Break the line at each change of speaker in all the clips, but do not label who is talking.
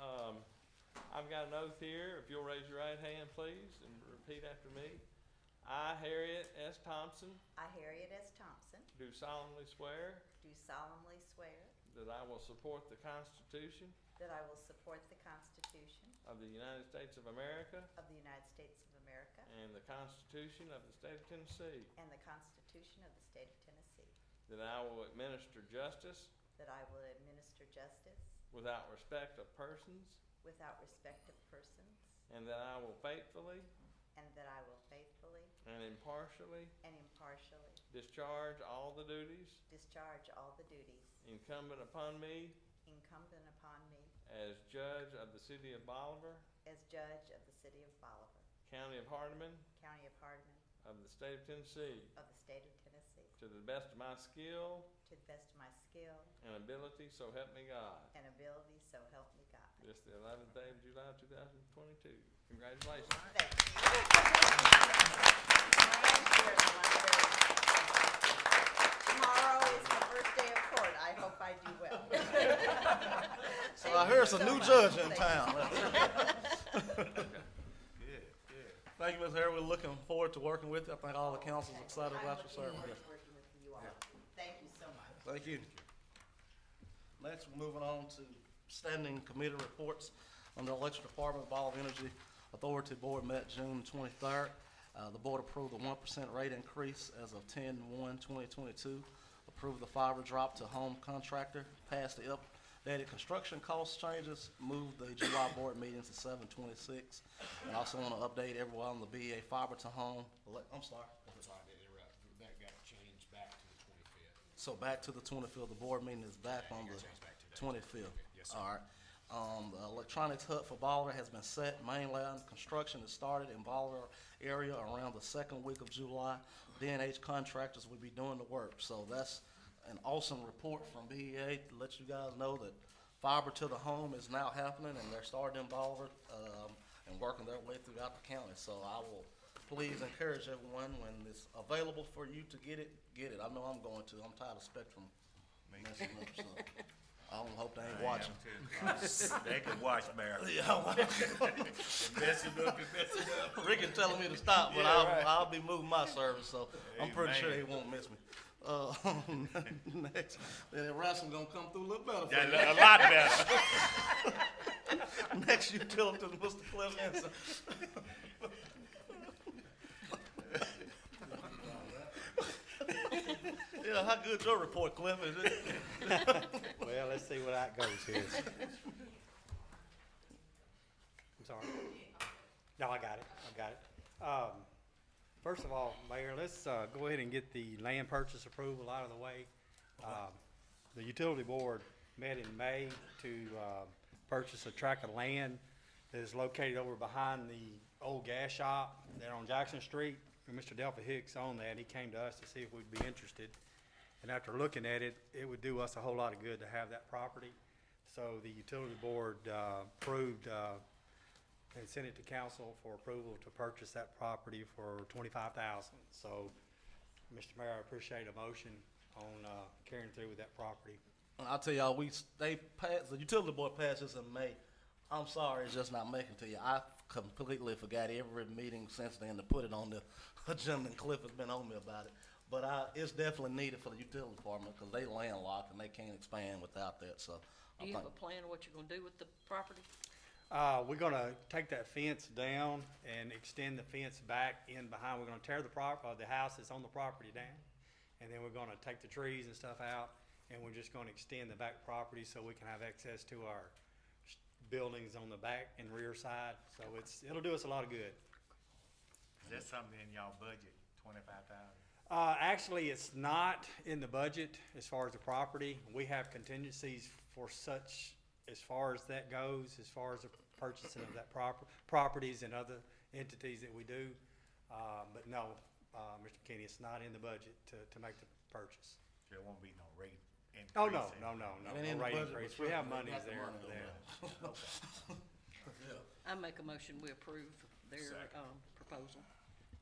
um, got an oath here. If you'll raise your right hand, please, and repeat after me. I, Harriet S. Thompson,
I, Harriet S. Thompson,
do solemnly swear
do solemnly swear
that I will support the Constitution
that I will support the Constitution
of the United States of America
of the United States of America
and the Constitution of the State of Tennessee,
and the Constitution of the State of Tennessee,
that I will administer justice
that I will administer justice
without respect of persons,
without respect of persons,
and that I will faithfully
and that I will faithfully
and impartially
and impartially
discharge all the duties
discharge all the duties
incumbent upon me
incumbent upon me
as judge of the city of Bolivar,
as judge of the City of Bolivar,
county of Hardeman,
County of Hardin,
of the state of Tennessee,
of the State of Tennessee,
to the best of my skill
to the best of my skill
and ability, so help me God.
and ability, so help me God.
This the eleventh day of July, two thousand twenty-two. Congratulations.
Thank you. Tomorrow is the first day of court. I hope I do well.
So I hear it's a new judge in town. Good, good. Thank you, Ms. Harris. We're looking forward to working with you. I think all the council's excited about your service.
Working with you all. Thank you so much.
Thank you. Next, we're moving on to standing committee reports on the election department. Bolivar Energy Authority Board met June twenty-third. Uh, the board approved the one percent rate increase as of 10-1-2022. approved the fiber drop to home contractor, passed the updated construction cost changes, moved the July board meetings to seven twenty-six. And also want to update everyone on the BA fiber to home, ele- I'm sorry,
Sorry to interrupt, that got changed back to the twenty-fifth.
So back to the twenty-fifth, the board meeting is back on
gotta change back
the
today.
twenty-fifth.
yes, sir.
All right. Um, the electronics hut for Bolivar has been set, mainland construction has started in Bolivar area around the second week of July. DNH contractors will be doing the work, so that's an awesome report from BEA to let you guys know that fiber to the home is now happening and they're starting in Bolivar, um, and working their way throughout the county, so I will please encourage everyone, when it's available for you to get it, get it. I know I'm going to. I'm tired of Spectrum messing up, so I don't hope they ain't watching.
They can watch Mayor.
Yeah,
Mess it up, mess it up.
Rick is telling me to stop, but
Yeah, right.
I'll, I'll be moving my service, so I'm pretty sure he
Amen.
won't miss me. Uh, next, then Ransom gonna come through a little better for
That,
you.
a lot better.
Next utility, Mr. Cliff Anson. Yeah, how good your report, Cliff, is it?
Well, let's see where that goes here. I'm sorry. No, I got it, I got it. Um, first of all, Mayor, let's, uh, go ahead and get the land purchase approval out of the way. Um, the utility board met in May to, uh, purchase a tract of land that is located over behind the old gas shop there on Jackson Street. And Mr. Delphi Hicks owned that, and he came to us to see if we'd be interested. And after looking at it, it would do us a whole lot of good to have that property. So the utility board uh, approved uh, and sent it to council for approval to purchase that property for twenty-five thousand. So, Mr. Mayor, I appreciate a motion on uh, carrying through with that property.
I'll tell y'all, we, s- they passed, the utility board passed this in May. I'm sorry, it's just not making to you. I completely forgot every meeting since then to put it on the agenda, and Cliff has been on me about it. But I, it's definitely needed for the utility department, because they landlocked and they can't expand without that, so. I
Do you have
think-
a plan of what you're gonna do with the property?
Uh, We're gonna take that fence down and extend the fence back in behind. We're gonna tear the prop, uh, the house that's on the property down. And then we're gonna take the trees and stuff out, and we're just gonna extend the back property so we can have access to our s- buildings on the back and rear side. So it's, it'll do us a lot of good.
That's something in y'all budget, twenty-five thousand.
Uh, actually, it's not in the budget as far as the property. We have contingencies for such, as far as that goes, as far as the purchasing of that proper, properties and other entities that we do. Uh, but no, uh, Mr. Kenny, it's not in the budget to, to make the purchase.
There won't be no rate increase.
Oh, no,
in-
no, no,
It
no,
ain't
no
in the
rate
budget,
increase.
but
We have
certainly got
monies
the
there
money
for
on
that.
that.
I make a motion, we approve their,
Second.
um, proposal.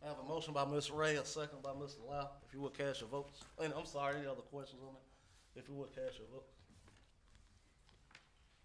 I have a motion by Ms. Ray, a second by Mr. Lau. If you would cast your votes. And I'm sorry, any other questions on that? If you would cast your votes.